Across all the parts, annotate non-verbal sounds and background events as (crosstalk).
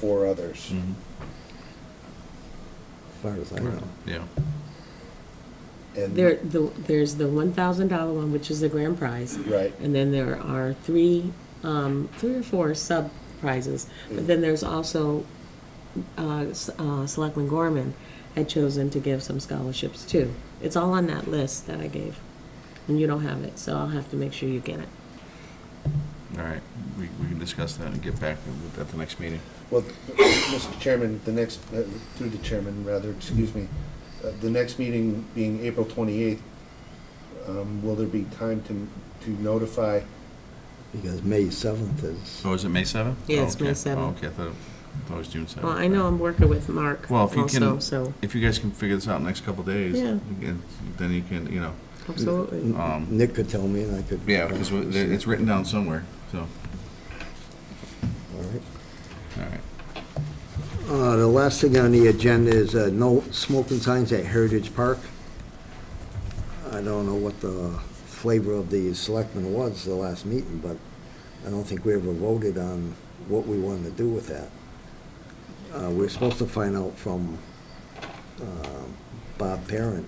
four others. Mhm. as far as I know. Yeah. And- There, the, there's the one thousand dollar one, which is the grand prize. Right. And then there are three, um, three or four sub prizes. But then there's also, uh, S- uh, Selectman Gorman had chosen to give some scholarships too. It's all on that list that I gave, and you don't have it, so I'll have to make sure you get it. All right, we, we can discuss that and get back with- at the next meeting. Well, Mr. Chairman, the next, uh, through the chairman, rather, excuse me, uh, the next meeting being April 28th, um, will there be time to to notify? Because May 7th is, So Oh, is it May 7th? Yeah, it's Okay. May Oh, 7th. Okay, I thought, it- I thought it was June 7th. Well, I know I'm working with Mark Well, if you also, can, so, if you guys can figure this out in the next couple of days, Yeah. you can- then you can, you know, absolutely. Um, Nick could tell me and I could. yeah, because it's written down somewhere, so, All right. all right. Uh, The last thing on the agenda is uh, no smoking signs at Heritage Park. I don't know what the flavor of the selectmen was the last meeting, but I don't think we ever voted on what we wanted to do with that. Uh, We're supposed to find out from um, Bob Parent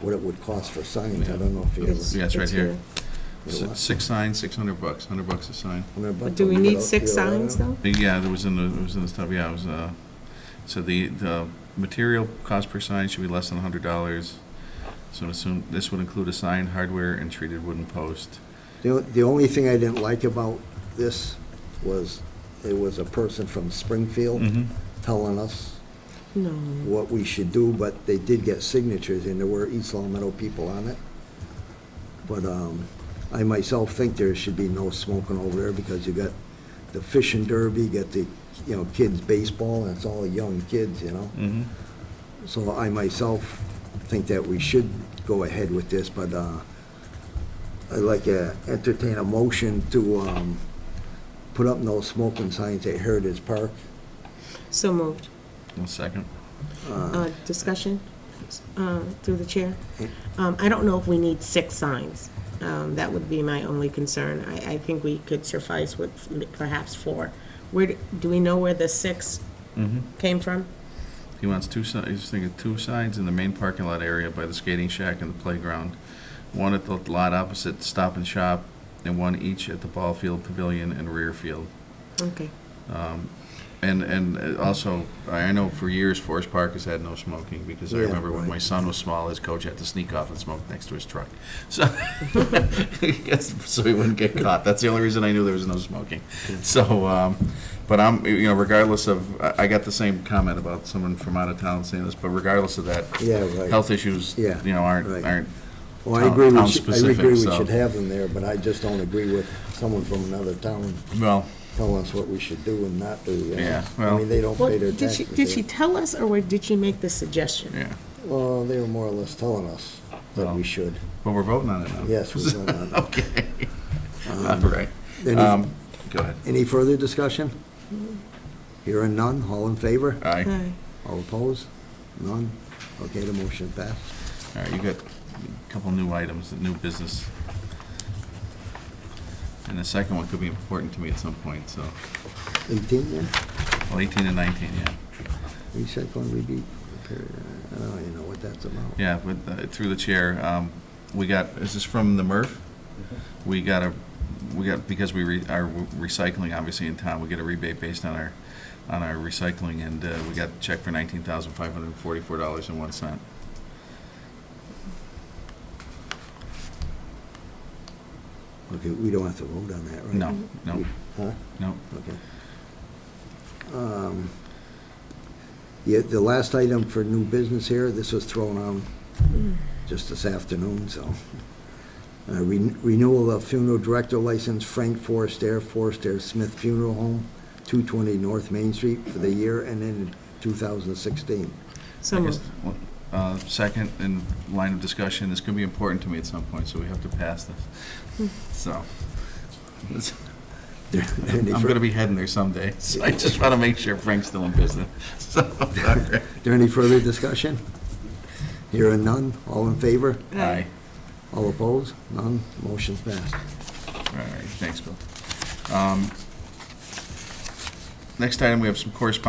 what it would cost for signs. I don't know if he It's- ever. Yeah, it's right it's here. You know S- what? Six signs, 600 bucks, 100 bucks a sign. But do we need six signs though? Yeah, there was in the, it was in the stuff, yeah, it was, uh, so the, the material cost per sign should be less than hundred dollars. So assume, this would include a sign, hardware, and treated wooden post. The o- The only thing I didn't like about this was, there was a person from Springfield Mhm. telling us No, what we should do, but they did get signatures, and there were East Long Meadow people on it. But um, I myself think there should be no smoking over there, because you got the fishing derby, you got the, you know, kids' baseball, and it's all young kids, you know? Mm-hmm. So I myself think that we should go ahead with this, but uh, I'd like to entertain a motion to um, put up no smoking signs at Heritage Park. so moved. One second. Uh, discussion uh, through the chair. Um, I don't know if we need six signs. Um, That would be my only concern. I, I think we could suffice with perhaps four. Where, d- do we know where the six Mm-hmm. came from? He wants two signs, he's thinking two signs in the main parking lot area by the skating shack and the playground. One at the lot opposite Stop and Shop, and one each at the ball field pavilion and rear field. Okay. And, and uh, also, I I know for years Forest Park has had no smoking, because I Yeah, remember when right. my son was small, his coach had to sneak off and smoke next to his truck. So, (laughs) yes, so he wouldn't get caught. That's the only reason I knew there was no smoking. So, um, but I'm, you know, regardless of, I I got the same comment about someone from out of town saying this, but regardless of that, Yeah, right. health issues, you Yeah, know, aren't, right. aren't, Well, I town- agree, we town should, I specific, agree we so- should have them there, but I just don't agree with someone from another town well, telling us what we should do and not do, you know? Yeah, I well- mean, they don't Well, pay their did she, taxes. did she there. tell us, or what- did she make the suggestion? yeah. Well, they were more or less telling us that Well. we should. But we're voting on it now. Yes, we vote on it. (laughs) Um, Okay. All right. Any- Um, Go ahead. Any further discussion? Hearing none, all in favor? Aye. Aye. All opposed? None? Okay, the motion passed. All right, you got a couple new items, new business. And the second one could be important to me at some point, so, Eighteen then? well, 18 and 19, yeah. Recycle and repeat, repair, I don't even know what that's about. Yeah, but uh, through the chair, um, we got, this is from the MRF. We got a, we got, because we re- are recycling, obviously, in town, we get a rebate based on our, on our recycling, and uh, we got a check for $19,544.01. Okay, we don't have to vote on that, right? No, no, Huh? no. Okay. Um, Yeah, the last item for new business here, this was thrown on just this afternoon, so. Uh, ren- Renewal of funeral director license Frank Forrester, Forrester Smith Funeral Home, 220 North Main Street for the year and in (laughs) 2016. So I guess, moved. uh, Second in line of discussion, this could be important to me at some point, so we have to pass Hmm. this. So, it's- Any I'm fur- going to be heading there someday, so I just want to make sure Frank's still in business. (laughs) So, all right. There any further discussion? Hearing none, all in favor? Aye. All opposed? None, motion's passed. All right, thanks, Bill. Um, Next item, we have some correspondence